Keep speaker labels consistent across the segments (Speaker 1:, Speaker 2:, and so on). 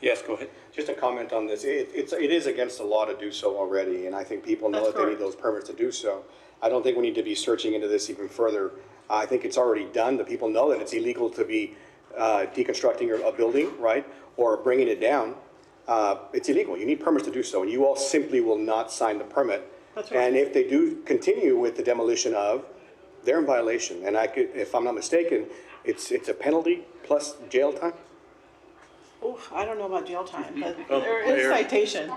Speaker 1: Yes, go ahead.
Speaker 2: Just a comment on this, it, it's, it is against the law to do so already, and I think people know
Speaker 3: That's
Speaker 2: that they need
Speaker 3: correct.
Speaker 2: those permits to do so. I don't think we need to be searching into this even further. I think it's already done, the people know that it's illegal to be, uh, deconstructing a, a building, right? Or bringing it down, uh, it's illegal, you need permits to do so, and you all simply will not sign the permit.
Speaker 3: That's right.
Speaker 2: And if they do continue with the demolition of, they're in violation, and I could, if I'm not mistaken, it's, it's a penalty plus jail time?
Speaker 3: Oof, I don't know about jail time, but
Speaker 1: Oh,
Speaker 3: there is
Speaker 1: there.
Speaker 3: citation.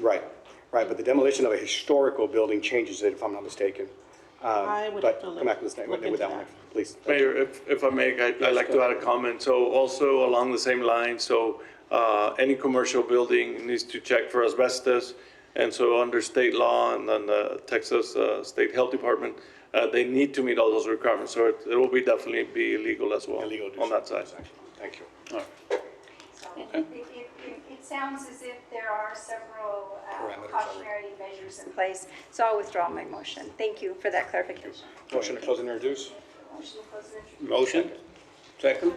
Speaker 2: Right, right, but the demolition of a historical building changes it, if I'm not mistaken. Um,
Speaker 3: I would have
Speaker 2: But
Speaker 3: to look
Speaker 2: come back to this,
Speaker 3: look
Speaker 2: with
Speaker 3: into
Speaker 2: that one, please.
Speaker 1: Mayor, if, if I may, I- I'd like to add a comment. So also along the same line, so uh, any commercial building needs to check for asbestos. And so under state law and then the Texas uh, State Health Department, uh, they need to meet all those requirements. So it it will be definitely be illegal as well
Speaker 2: Illegal to do
Speaker 1: on that
Speaker 2: so.
Speaker 1: side.
Speaker 2: Thank you.
Speaker 4: So It, it, it- it sounds as if there are several uh,
Speaker 2: Parameters already.
Speaker 4: cautionary measures in place, so I'll withdraw my motion. Thank you for that clarification.
Speaker 2: Motion to close and introduce?
Speaker 4: Motion to close and introduce.
Speaker 5: Motion? Second?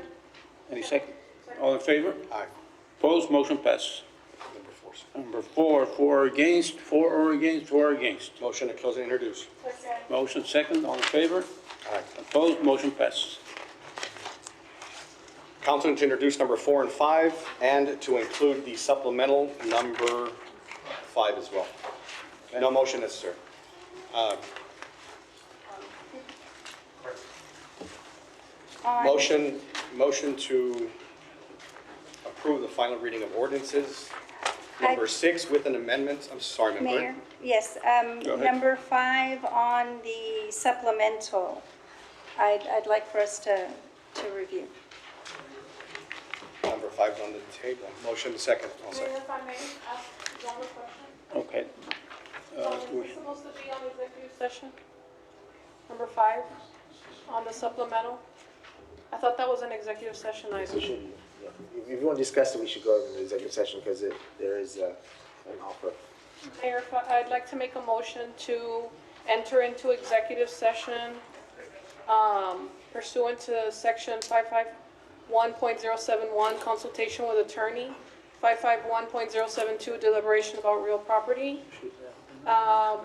Speaker 5: Any second? All in favor?
Speaker 2: Aye.
Speaker 5: Opposed? Motion passes.
Speaker 2: Number four.
Speaker 5: Number four, four against, four or against, four against.
Speaker 2: Motion to close and introduce?
Speaker 4: Close and-
Speaker 5: Motion second, all in favor?
Speaker 2: Aye.
Speaker 5: Opposed? Motion passes.
Speaker 2: Council to introduce number four and five, and to include the supplemental number five as well. No motion necessary. Uh,
Speaker 4: on-
Speaker 2: Motion, motion to approve the final reading of ordinances, number
Speaker 4: I-
Speaker 2: six with an amendment, I'm sorry, Madam Clerk.
Speaker 4: Mayor, yes, um,
Speaker 2: Go ahead.
Speaker 4: number five on the supplemental, I'd, I'd like for us to, to review.
Speaker 2: Number five on the table. Motion to second. I'll
Speaker 6: Mayor,
Speaker 2: second.
Speaker 6: if I may ask one more question.
Speaker 5: Okay.
Speaker 6: So is this supposed to be on executive session? Number five, on the supplemental? I thought that was an executive session item.
Speaker 7: We should, yeah. If- if you want to discuss it, we should go into the executive session because there is uh, an offer.
Speaker 6: Mayor, if I- I'd like to make a motion to enter into executive session um, pursuant to section 551.071, consultation with attorney, 551.072, deliberation about real property, um,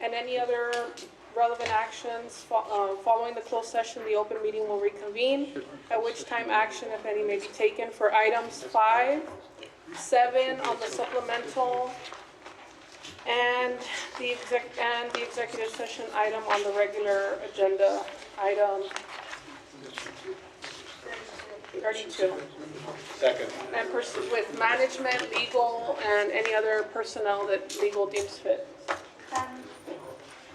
Speaker 6: and any other relevant actions. Fo- uh, Following the closed session, the open meeting will reconvene, at which time action, if any, may be taken for items five, seven on the supplemental, and the exec, and the executive session item on the regular agenda, item thirty-two.
Speaker 2: Second.
Speaker 6: And pursue with management, legal, and any other personnel that legal deems fit.
Speaker 4: Um,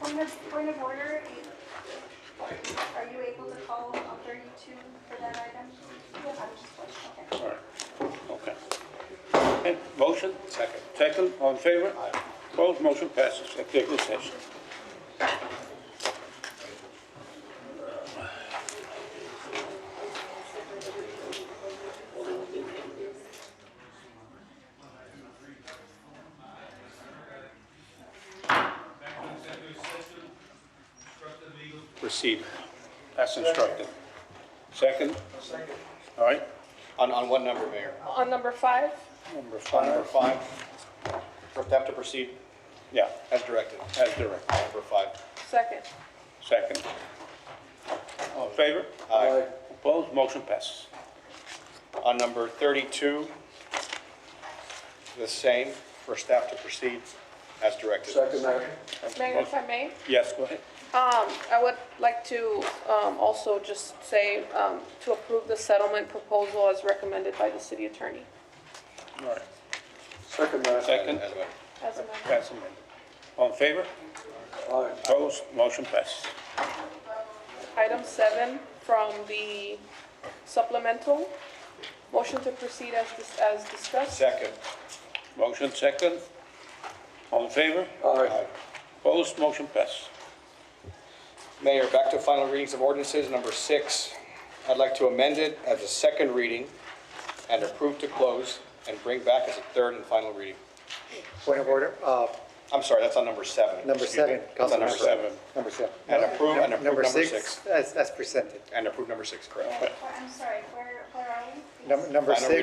Speaker 4: Point of, point of order, are you able to call on 32 for that item? I'm just questioning.
Speaker 5: All right. Okay. Okay. Motion?
Speaker 2: Second.
Speaker 5: Second, all in favor? Opposed? Motion passes. Executive session.
Speaker 2: Proceed.
Speaker 5: That's instructed. Second? Second. All right.
Speaker 2: On, on what number, Mayor?
Speaker 6: On number five,
Speaker 5: Number
Speaker 2: On number
Speaker 5: five.
Speaker 2: five? For staff to proceed
Speaker 5: Yeah,
Speaker 2: as directed.
Speaker 5: as directed.
Speaker 2: Number five.
Speaker 6: second.
Speaker 5: Second. All in favor?
Speaker 2: Aye.
Speaker 5: Opposed? Motion passes.
Speaker 2: On number 32, the same, for staff to proceed as directed.
Speaker 6: Mayor, if I may?
Speaker 5: Yes, go ahead.
Speaker 6: Um, I would like to, um, also just say, um, to approve the settlement proposal as recommended by the city attorney.
Speaker 5: All right.
Speaker 2: Second.
Speaker 5: Second.
Speaker 2: As amended.
Speaker 6: As amended.
Speaker 5: That's amended. All in favor? Opposed? Motion passes.
Speaker 6: Item seven from the supplemental, motion to proceed as, dis- as discussed.
Speaker 2: Second.
Speaker 5: Motion second. All in favor? Aye. Opposed? Motion passes.
Speaker 2: Mayor, back to final readings of ordinances, number six. I'd like to amend it as a second reading and approve to close and bring back as a third and final reading.
Speaker 7: Point of order, uh,
Speaker 2: I'm sorry, that's on number seven.
Speaker 7: number
Speaker 2: Excuse me.
Speaker 7: seven.
Speaker 2: That's on
Speaker 7: Councilmember.
Speaker 2: number seven.
Speaker 7: Number seven.
Speaker 2: And approve, and approve number
Speaker 7: Number six,
Speaker 2: six.
Speaker 7: as as presented.
Speaker 2: And approve number six, correct.
Speaker 4: I'm sorry, where, where are we?
Speaker 7: Number number
Speaker 2: Final
Speaker 7: six.